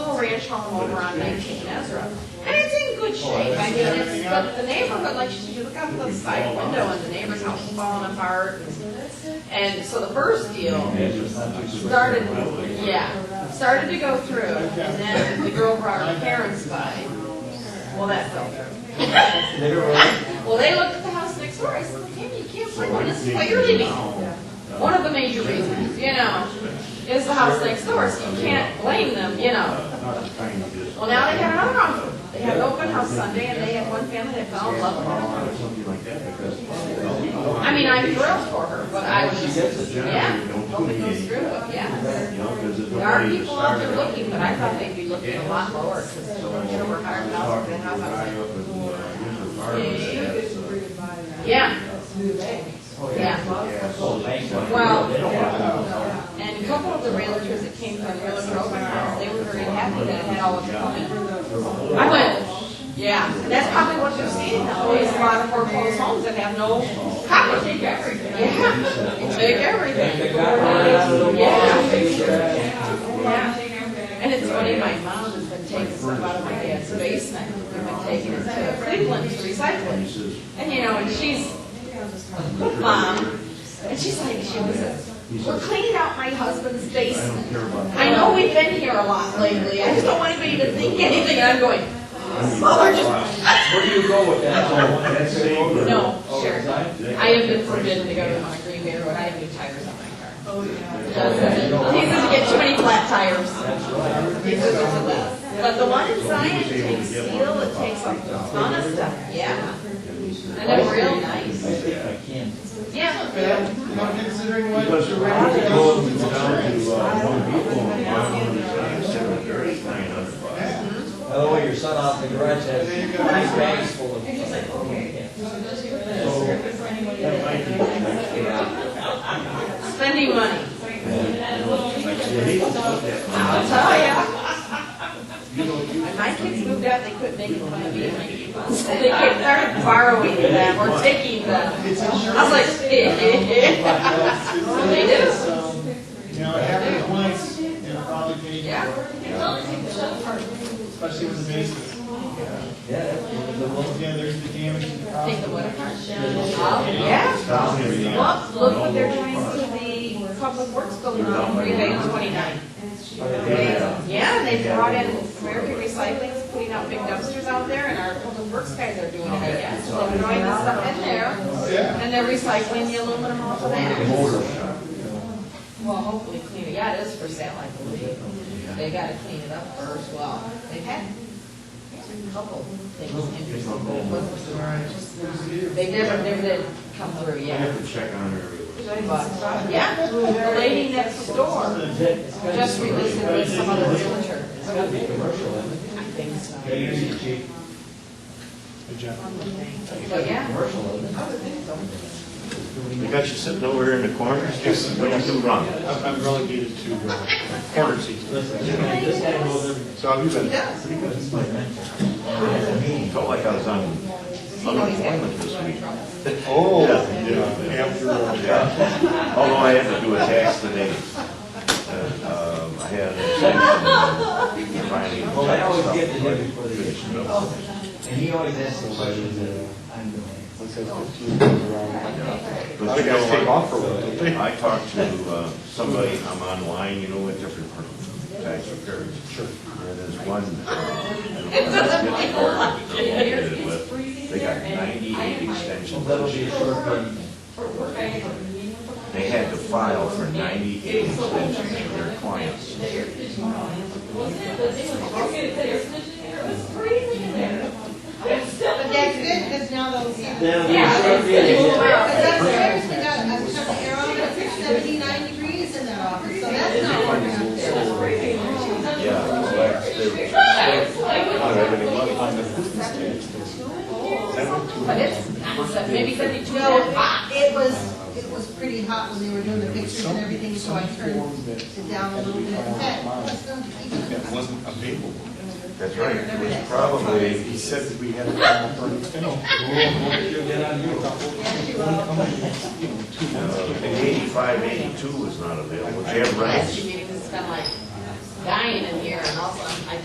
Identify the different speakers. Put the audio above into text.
Speaker 1: ranch home over on nineteen Ezra. And it's in good shape, I mean, it's, but the neighborhood, like, you look out the side window and the neighbor's house is falling apart. And so the first deal started, yeah, started to go through, and then the girl brought her parents by. Well, that fell through. Well, they looked at the house next door, I said, Tammy, you can't bring one, this is what you're leaving. One of the major reasons, you know, is the house next door, so you can't blame them, you know. Well, now they have another offer. They had an open house Sunday, and they had one family that fell in love with her. I mean, I'm thrilled for her, but I was just, yeah, hope it goes through, yeah. There are people out there looking, but I thought they'd be looking a lot lower, because they're over higher house than how about. Yeah, yeah. Well, and a couple of the realtors that came from Realtor Open House, they were very happy that it had all of the coming. I went, yeah, and that's probably what they're seeing now, is a lot of foreclosed homes that have no coverage. They take everything. Yeah, they take everything. Yeah. Yeah. And it's funny, my mom has been taking stuff out of my dad's basement, and been taking it to Cleveland to recycle it. And you know, and she's, mom, and she's like, she was, like, we're cleaning out my husband's basement. I know we've been here a lot lately, I just don't want anybody to think anything, and I'm going, mother, just,
Speaker 2: Where do you go with that?
Speaker 1: no, sure. I have been forbidden to go to Mount Green Bay Road, I have new tires on my car. Oh, yeah. He doesn't get too many flat tires. He says it's a mess. But the one in Zion takes steel, it takes a ton of stuff, yeah. And they're real
Speaker 2: I
Speaker 1: nice.
Speaker 2: think I can.
Speaker 1: Yeah.
Speaker 3: Considering what
Speaker 4: Because
Speaker 3: your
Speaker 4: we're
Speaker 3: rent
Speaker 4: probably
Speaker 3: is,
Speaker 4: going
Speaker 3: it's
Speaker 4: down
Speaker 3: insurance.
Speaker 4: to, uh, one people, and my one is nine, seven, thirty, nine hundred bucks.
Speaker 2: By the way, your son off the garage has
Speaker 3: There you
Speaker 2: these
Speaker 3: go.
Speaker 2: bags full of. Yeah.
Speaker 1: Spending money,
Speaker 4: Yeah, he was up there.
Speaker 1: I'll tell ya. When my kids moved out, they couldn't make fun of me. So They kept started borrowing them or taking them.
Speaker 3: It's
Speaker 1: I was
Speaker 3: insurance.
Speaker 1: like, They do,
Speaker 3: You know, it happened once, and it probably paid for it, especially with the basement.
Speaker 2: Yeah, that's the one.
Speaker 3: Yeah, there's the damage in the
Speaker 1: take
Speaker 3: house.
Speaker 1: the wood apart. Oh, yeah.
Speaker 4: Stop him, you know.
Speaker 1: Well, look what they're doing to the public works building on Green Bay and 29. Yeah, they brought in American Recycling, is putting out big dumpsters out there, and our public works guys are doing it, I guess. So they're throwing the stuff in there,
Speaker 3: Yeah.
Speaker 1: and they're recycling the aluminum off of that. Well, hopefully clean it, yeah, it is for sale, I believe. They gotta clean it up first, well, they've had a couple things interesting, but it wasn't- they never, never did come through
Speaker 4: I
Speaker 1: yet.
Speaker 4: have to check on her.
Speaker 1: But, yeah, the lady next door just released it with some other realtor.
Speaker 2: It's gotta be commercial, isn't it?
Speaker 1: I think so.
Speaker 3: Good job.
Speaker 1: But yeah,
Speaker 2: Commercial, isn't it?
Speaker 1: I would think so.
Speaker 4: They got you sitting over here in the corner, just what you do wrong.
Speaker 3: I'm I'm relegated to uh, corner seats.
Speaker 2: This guy knows everything.
Speaker 4: So have you
Speaker 1: He
Speaker 4: been,
Speaker 1: does.
Speaker 4: pretty good, it's like, felt like I was on
Speaker 1: He knows he's
Speaker 4: unemployment
Speaker 1: got
Speaker 4: this
Speaker 1: some
Speaker 4: week.
Speaker 1: trouble.
Speaker 3: Oh, yeah, after, uh,
Speaker 4: Yeah. Although I had to do a tax today. And, um, I had a section finding.
Speaker 2: Well, I always get to him before they get to me. And he always asks the questions that I'm doing.
Speaker 4: But you know, I- I talked to uh, somebody, I'm online, you know, at different types of carriage. Sure. And there's one. uh, It They got ninety-eight extensions.
Speaker 2: That'll be a short meeting.
Speaker 4: They had to file for ninety-eight extensions for their clients.
Speaker 5: But that's good, because now those, yeah.
Speaker 1: Yeah,
Speaker 5: Because
Speaker 1: it's-
Speaker 5: that's seriously got, I've turned the arrow to seventy-nine degrees in that office, so that's not working out there.
Speaker 4: Yeah. so that's- they were- Not having any money.
Speaker 1: but it's, not so- maybe seventy-two ah.
Speaker 5: No,
Speaker 1: and a half.
Speaker 5: it was, it was pretty hot when they were doing the pictures and everything, so I turned it down a little bit. In fact, let's go to-
Speaker 3: That wasn't available.
Speaker 4: That's right, it was probably. He said that we had. uh, Eighty-five, eighty-two was not available. Jim Rice.
Speaker 1: Last meeting has been like dying in here, and also I